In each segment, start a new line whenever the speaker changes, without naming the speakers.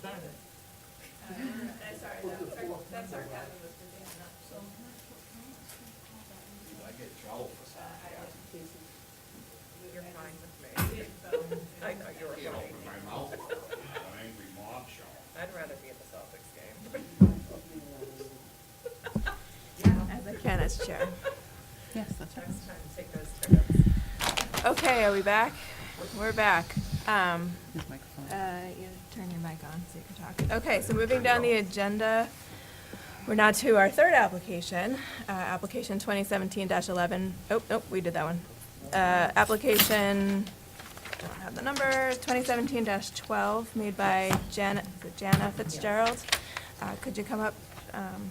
Saturday.
Uh, That's our, that's our, that's our kind of Mr. Dan, not so.
I get in trouble for that.
You're fine with me.
I
I know you're
Can't
right.
open my mouth, an angry mob show.
I'd rather be at the Celtics game.
As I can as chair.
Yes, that's
Next time, take those tickets.
Okay, are we back? We're back. Um,
His microphone.
uh, you turn your mic on so you can talk. Okay, so moving down the agenda, we're now to our third application, uh, application twenty seventeen eleven. Oh, nope, we did that one. Uh, application, don't have the number, twenty seventeen twelve, made by Jana, is it Jana Fitzgerald. Uh, could you come up, um,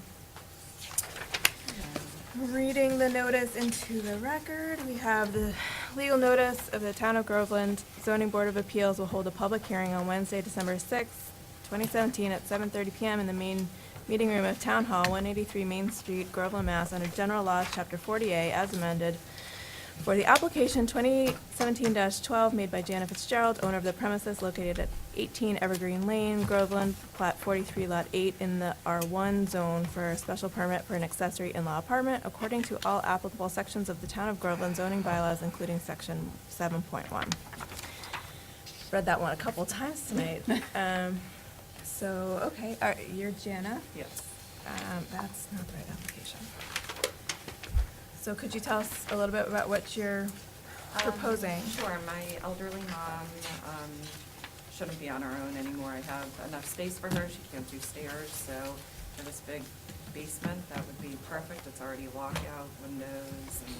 Reading the notice into the record, we have the legal notice of the Town of Groveland Zoning Board of Appeals will hold a public hearing on Wednesday, December sixth, twenty seventeen, at seven thirty PM in the main meeting room of Town Hall, one eighty-three Main Street, Groveland, Mass, under General Laws, Chapter forty-eight, as amended, for the application twenty seventeen twelve made by Jana Fitzgerald, owner of the premises located at eighteen Evergreen Lane, Groveland, plat forty-three lot eight in the R one zone for a special permit for an accessory in-law apartment according to all applicable sections of the town of Groveland zoning bylaws, including section seven point one. Read that one a couple times tonight. Um, so, okay, all right, you're Jana.
Yes.
Um, that's not the right application. So could you tell us a little bit about what you're proposing?
Um, Sure, my elderly mom um, shouldn't be on her own anymore. I have enough space for her, she can't do stairs, so for this big basement, that would be perfect. It's already walkout, windows, and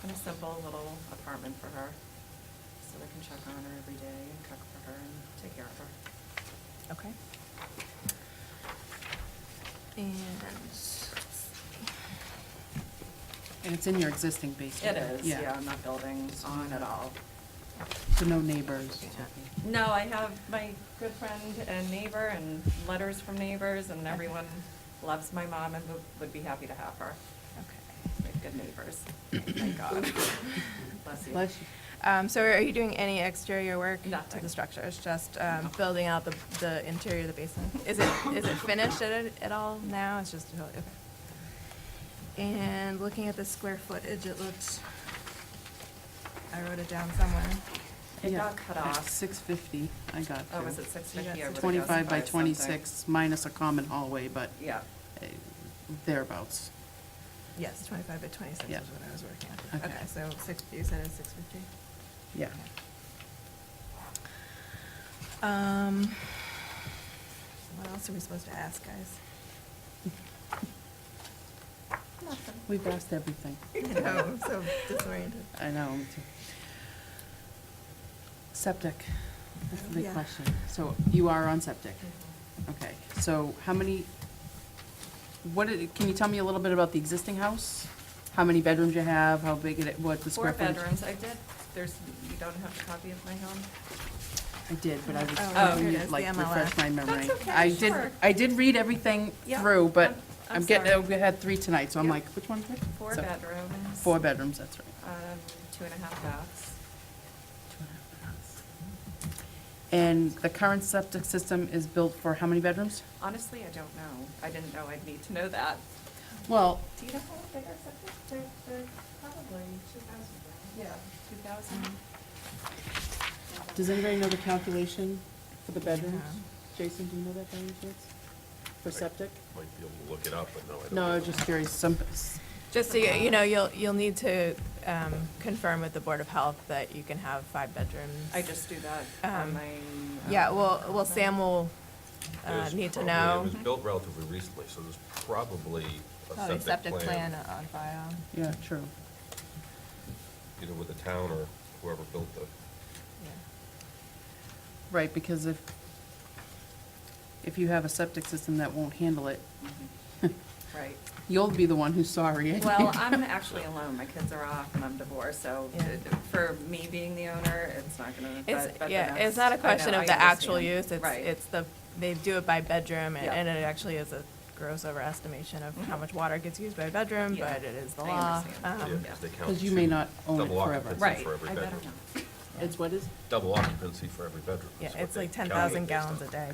kind of simple little apartment for her. So I can check on her every day and cook for her and take care of her.
Okay. And,
And it's in your existing basement?
It is, yeah, I'm not building on at all.
So no neighbors?
No, I have my good friend and neighbor and letters from neighbors and everyone loves my mom and would- would be happy to have her.
okay.
We have good neighbors, thank God. Bless you.
Bless you.
Um, so are you doing any exterior work to
Nothing.
the structure? It's just, um,
No.
building out the, the interior of the basement? Is it, is it finished at, at all now? It's just, totally- okay. And looking at the square footage, it looked, I wrote it down somewhere.
It
Yeah,
got cut off.
Six fifty, I got
Oh,
to.
was it six fifty?
Twenty-five by twenty-six, minus a common hallway, but
Yeah,
eh, thereabouts.
Yes, twenty-five by twenty-six is
Yeah.
what I was working on.
Okay.
Okay, so six, you said it's six fifty?
Yeah.
Um, what else are we supposed to ask, guys?
We've asked everything.
I know, I'm so disoriented.
I know. me too. Septic, that's the big
Yeah.
question. So you are on septic?
Mm-hmm.
Okay, so how many, what, did- can you tell me a little bit about the existing house? How many bedrooms you have, how big it, what the
four
square footage?
bedrooms, I did, there's, you don't have a copy of my home?
I did, but I was,
Oh,
Oh,
hoping
here it
you'd
is,
like
the
refresh
MLF.
my memory.
That's okay,
I did,
sure.
I did read everything
Yeah,
through, but
I'm- I'm
I'm getting,
sorry.
we had three tonight, so I'm
Yeah.
like, which one's which?
Four
So,
bedrooms.
Four bedrooms, that's right.
Um, two and a half baths.
And the current septic system is built for how many bedrooms?
Honestly, I don't know, I didn't know I'd need to know that.
Well,
Do you know how big our septic, they're, they're probably two thousand, Yeah, two thousand.
does anybody know the calculation for the bedrooms?
No.
Jason, do you know that by any chance? For septic?
Might be able to look it up, but no, I don't.
No, I
know.
was just curious, some,
Just so you, you know, you'll, you'll need to, um, confirm with the Board of Health that you can have five bedrooms.
I just do that on
Um,
my.
Yeah,
um,
well, well, Sam will,
It
uh,
was
need to
probably-
know.
It was built relatively recently, so there's probably
Probably
a septic plan,
on file.
yeah, true.
either with the town or whoever built the,
Right, because if, if you have a septic system that won't handle it,
mhm. Right.
you'll be the one who's sorry. I
Well,
think.
I'm actually alone, my kids are off and I'm divorced, so
Yeah.
it- for me being the owner, it's not gonna, but, but
It's,
the
yeah,
next-
it's not a
I know,
question
I
of the actual
understand.
use, it's,
Right.
it's the, they do it by bedroom, and,
Yeah.
and it actually is a gross overestimation of how
Mhm.
much water gets used by bedroom,
Yeah.
but it is the
I
law.
understand.
yeah,
Um,
'cause they count.
Because you may
two
not own it
double
forever.
occupancy
Right,
for every
I better
bedroom.
not.
It's what is?
Double occupancy for every bedroom.
Yeah,
is what
it's
they
like ten
calculate
thousand
based on.
gallons a day.